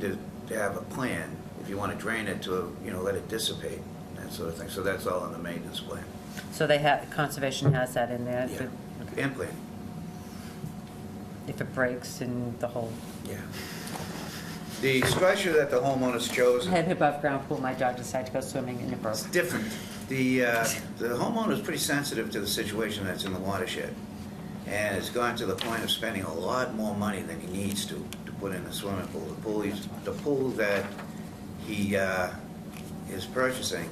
to, to have a plan, if you want to drain it to, you know, let it dissipate, that sort of thing. So that's all in the maintenance plan. So they have, conservation has that in there, if Yeah, it- and plan, if it breaks and the whole yeah. The structure that the homeowners chose head above ground pool, my dog decided to go swimming in it broke. It's different. The, uh, the homeowner is pretty sensitive to the situation that's in the watershed. And has gone to the point of spending a lot more money than he needs to, to put in a swimming pool. The pool he's, the pool that he, uh, is purchasing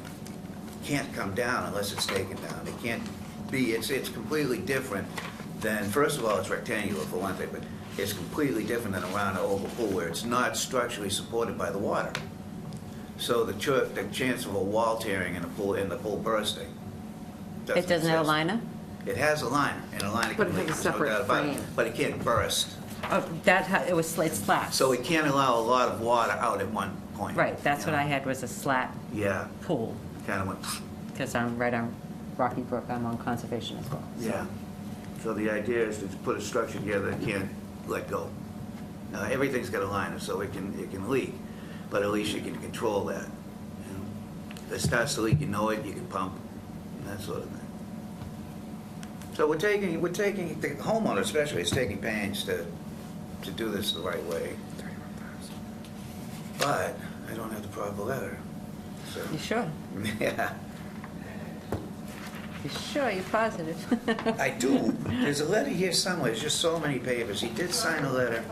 can't come down unless it's taken down. It can't be, it's, it's completely different than, first of all, it's rectangular for one thing, but it's completely different than a round or oval pool where it's not structurally supported by the water. So the ch- the chance of a wall tearing in a pool, in the pool bursting. It doesn't have a exist. liner? It It has a liner, and a liner But it has can leak, a there's no separate doubt about it, frame. but it can't burst. Oh, that, ha- it was, it's slats. So it can't allow a lot of water out at one point. Right, that's you what I know? had was a slat Yeah, pool, kind of went, because I'm right on Rocky Brook, I'm on conservation as well. so. yeah. So the idea is to put a structure together that can't let go. Now, everything's got a liner, so it can, it can leak, but at least you can control that. you know? If it starts to leak, you know it, you can pump, and that sort of thing. So we're taking, we're taking, the homeowner especially is taking pains to, to do this the right way. But I don't have the proper letter, so, You sure? yeah. You sure? You're positive? I do. There's a letter here somewhere. There's just so many papers. He did sign a letter.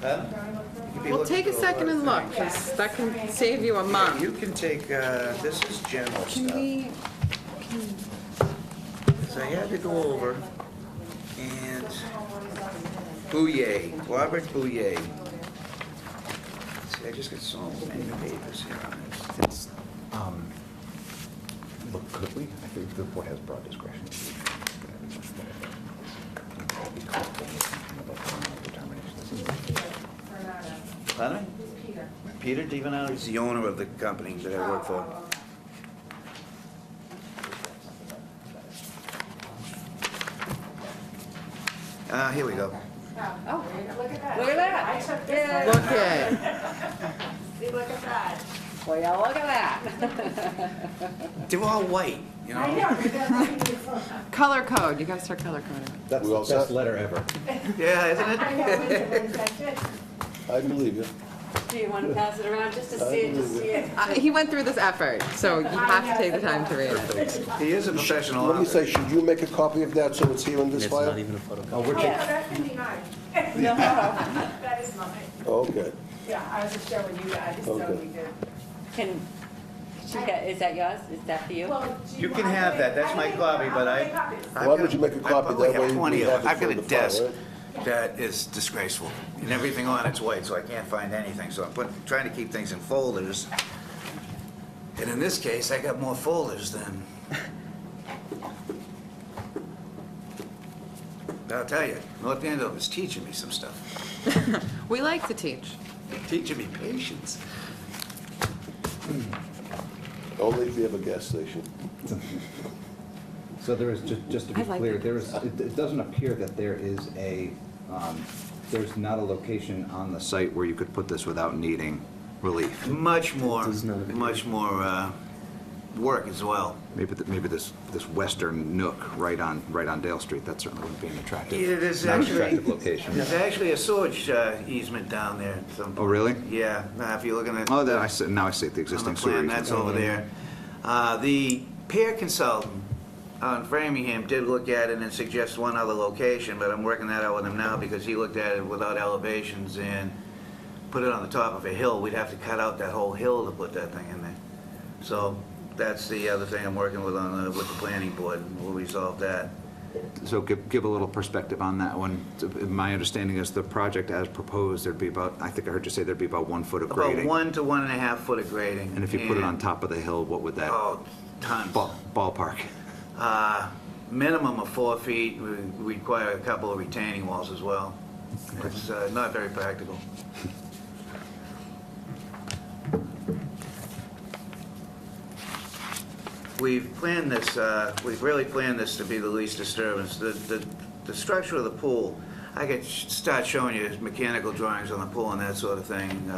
Huh? You could be Well, looking take a for lot second of and look, things. 'cause that can save you a Yeah, month. You can take, uh, this is general Can stuff. we, So I had to go over and Bouye, Robert Bouye. See, I just got so many papers here on this. It's, um, look, could we, I think the board has broad discretion. Pardon? Peter Divanelli is the owner of the company that I work for. Oh, Uh, here we go. Oh, look at that. Look at that. I took this Yeah. one. look at, See, look at that. Well, yeah, look at that. They're all white, you know? I know, because I can do some- color code, you gotta start color coding. That's the best letter ever. Yeah, I isn't it? know which ones I did. I believe you. Do you want to pass it around just to see it, just see it? Uh, He went through this effort, so you have to take the time to read it. He is a professional Let me say, officer. should you make a copy of that so it's here in this It's not file? even a photocopy. Oh, we're Oh, taking, that can be mine. That is mine. Okay. Yeah, I was just showing you guys, so Okay. we did. Can, she got- is that yours? Is that for you? Well, do You can want- have that. That's I my can- copy, I'll but I- make copies. Why would you make a I've copy? probably That have way we plenty of have them. it I've for got a the file, desk right? that is disgraceful, and everything on it's white, so I can't find anything, so I'm put- trying to keep things in folders. And in this case, I got more folders than... But I'll tell you, North Andover is teaching me some stuff, We like to teach. teaching me patience. Only if you have a gas station. so there is, ju- just to be I like clear, it. there is, it it doesn't appear that there is a, um, there's not a location on the site where you could put this without needing relief. Much more, There's not a video. much more uh, work as well. Maybe, th- maybe this, this western nook right on, right on Dale Street, that certainly wouldn't be an attractive, Yeah, there's not an actually- attractive location. There's actually a sewage uh, easement down there at some Oh, point. really? Yeah, now if you're looking at. Oh, that, I see, now I see the on the existing Oh. sewer plan, easement. that's over there. Uh, The peer consultant on Framingham did look at it and suggest one other location, but I'm working that out with him now because he looked at it without elevations and put it on the top of a hill. We'd have to cut out that whole hill to put that thing in there. So that's the other thing I'm working with on, the- with the planning board, and we'll resolve that. So give, give a little perspective on that one. My understanding is the project as proposed, there'd be about, I think I heard you say there'd be about one foot of About grading. one to one and a half foot of grading. And if you put it on top of the hill, what would that, Oh, tons. ball- ballpark? Uh, Minimum of four feet, we we require a couple of retaining walls as well. It's uh, not very practical. We've planned this, uh, we've really planned this to be the least disturbance. The, the, the structure of the pool, I could sh- start showing you mechanical drawings on the pool and that sort of thing, uh,